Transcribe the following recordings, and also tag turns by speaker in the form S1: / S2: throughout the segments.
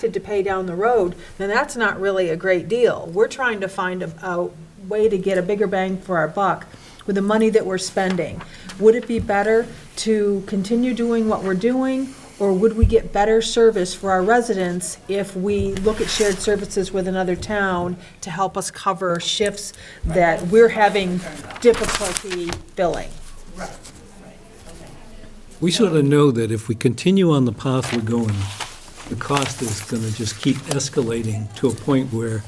S1: to to pay down the road, then that's not really a great deal. We're trying to find a, a way to get a bigger bang for our buck with the money that we're spending. Would it be better to continue doing what we're doing, or would we get better service for our residents if we look at shared services with another town to help us cover shifts that we're having difficulty filling?
S2: We sort of know that if we continue on the path we're going, the cost is going to just keep escalating to a point where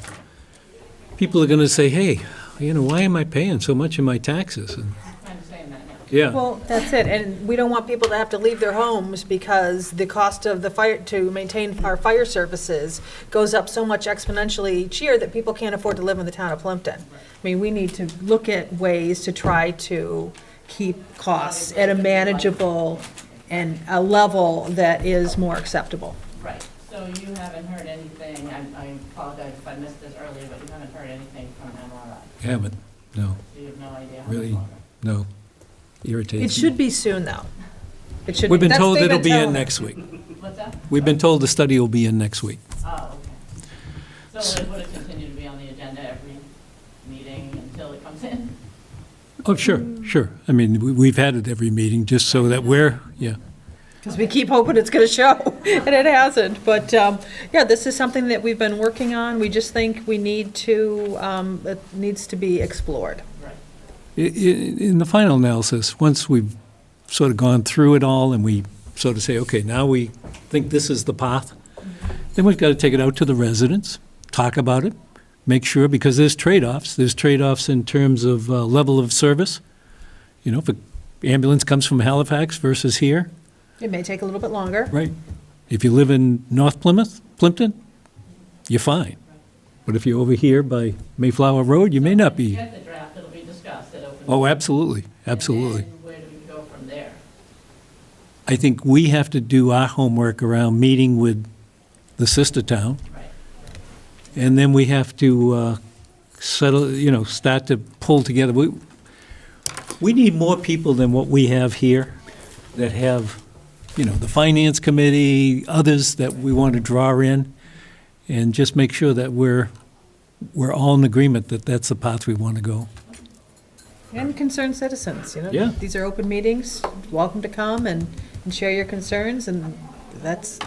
S2: people are going to say, hey, you know, why am I paying so much in my taxes? And-
S3: I'm saying that now.
S2: Yeah,
S1: Well, that's it, and we don't want people to have to leave their homes because the cost of the fire, to maintain our fire services goes up so much exponentially each year that people can't afford to live in the town of Plimpton. I mean, we need to look at ways to try to keep costs at a manageable and a level that is more acceptable.
S3: Right, so you haven't heard anything, I I apologize if I missed this earlier, but you haven't heard anything from MRI,
S2: haven't, no,
S3: so you have no idea how
S2: really,
S3: long.
S2: no. Irritating.
S1: It should be soon, though. It should.
S2: We've been
S1: that's-
S2: told
S1: they've
S2: it'll be in
S1: telling us.
S2: next week.
S3: What's that?
S2: We've been told the study will be in next week.
S3: Oh, okay. So it would have continued to be on the agenda every meeting until it comes in?
S2: Oh, sure, sure. I mean, we- we've had it every meeting, just so that we're, yeah.
S1: Because we keep hoping it's going to show, and it hasn't. But, um, yeah, this is something that we've been working on. We just think we need to, um, it needs to be explored.
S3: Right.
S2: I- i- In the final analysis, once we've sort of gone through it all and we sort of say, okay, now we think this is the path, then we've got to take it out to the residents, talk about it, make sure, because there's trade-offs. There's trade-offs in terms of uh, level of service. You know, if an ambulance comes from Halifax versus here,
S1: It may take a little bit longer.
S2: right? If you live in North Plymouth, Plimpton, you're fine. But if you're over here by Mayflower Road, you may not
S3: If you
S2: be.
S3: get the draft, it'll be discussed at open.
S2: Oh, absolutely, absolutely.
S3: And then where do we go from there?
S2: I think we have to do our homework around meeting with the sister town,
S3: Right,
S2: and then we have to uh, settle, you know, start to pull together. We we need more people than what we have here that have, you know, the finance committee, others that we want to draw in, and just make sure that we're, we're all in agreement that that's the path we want to go.
S1: And concerned citizens, you know?
S2: Yeah.
S1: These are open meetings, welcome to come and, and share your concerns, and that's.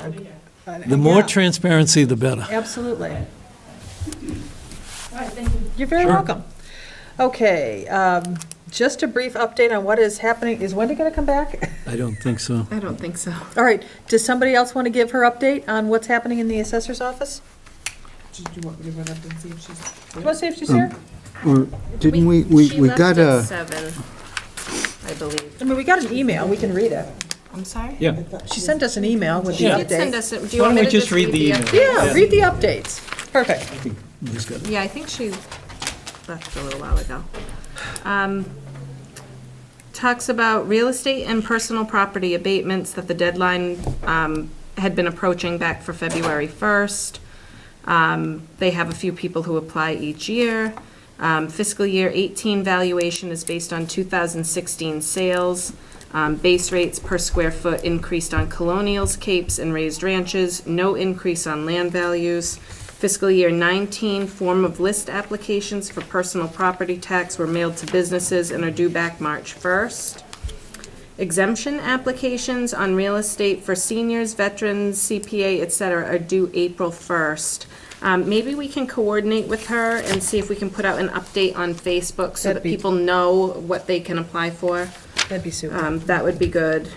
S2: The more
S1: yeah,
S2: transparency, the better.
S1: Absolutely.
S3: all right, thank you.
S1: You're very
S2: Sure.
S1: welcome. Okay, um, just a brief update on what is happening. Is Wendy going to come back?
S2: I don't think so.
S4: I don't think so.
S1: All right, does somebody else want to give her update on what's happening in the assessor's office?
S4: Did you want me to run up and see if she's?
S1: Do you want to see if she's here?
S4: Mm.
S5: Or didn't we, we, we got a,
S4: Seven, I believe.
S1: I mean, we got an email, we can read it.
S4: I'm sorry?
S2: Yeah.
S1: She sent us an email with the
S2: Yeah.
S4: She did send
S1: update.
S4: us, it. do you
S2: Why
S4: want
S2: don't
S4: me
S2: we
S4: to
S2: just read the
S4: up-
S2: email?
S1: Yeah, read the updates. Perfect.
S2: Just got-
S4: Yeah, I think she left a little while ago. Um, Talks about real estate and personal property abatements that the deadline um, had been approaching back for February 1st. Um, They have a few people who apply each year. Um, Fiscal year 18 valuation is based on 2016 sales. Um, Base rates per square foot increased on colonials, capes, and raised ranches, no increase on land values. Fiscal year 19 form of list applications for personal property tax were mailed to businesses and are due back March 1st. Exemption applications on real estate for seniors, veterans, CPA, et cetera, are due April 1st. Um, Maybe we can coordinate with her and see if we can put out an update on Facebook so
S1: That'd
S4: that
S1: be-
S4: people know what they can apply for.
S1: That'd be super.
S4: Um, That would be good.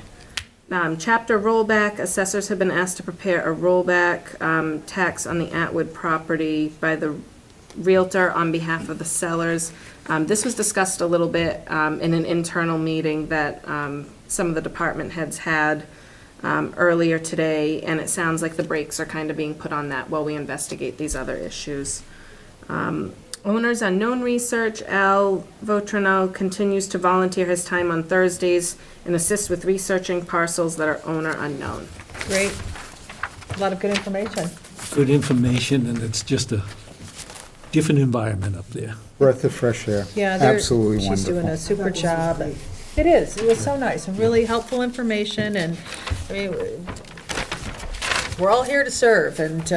S4: Um, Chapter rollback, assessors have been asked to prepare a rollback um, tax on the Atwood property by the Realtor on behalf of the sellers. Um, This was discussed a little bit um, in an internal meeting that um, some of the department heads had um, earlier today, and it sounds like the brakes are kind of being put on that while we investigate these other issues. Um, Owners Unknown Research, Al Votrino continues to volunteer his time on Thursdays and assist with researching parcels that are owner unknown.
S1: Great. A lot of good information.
S2: good information, and it's just a different environment up there.
S5: breath of fresh air?
S1: Yeah, they're-
S5: Absolutely
S1: She's doing a
S5: wonderful.
S1: super job. and- It is, it was so nice, and really helpful information, and, I mean, we're all here to serve, and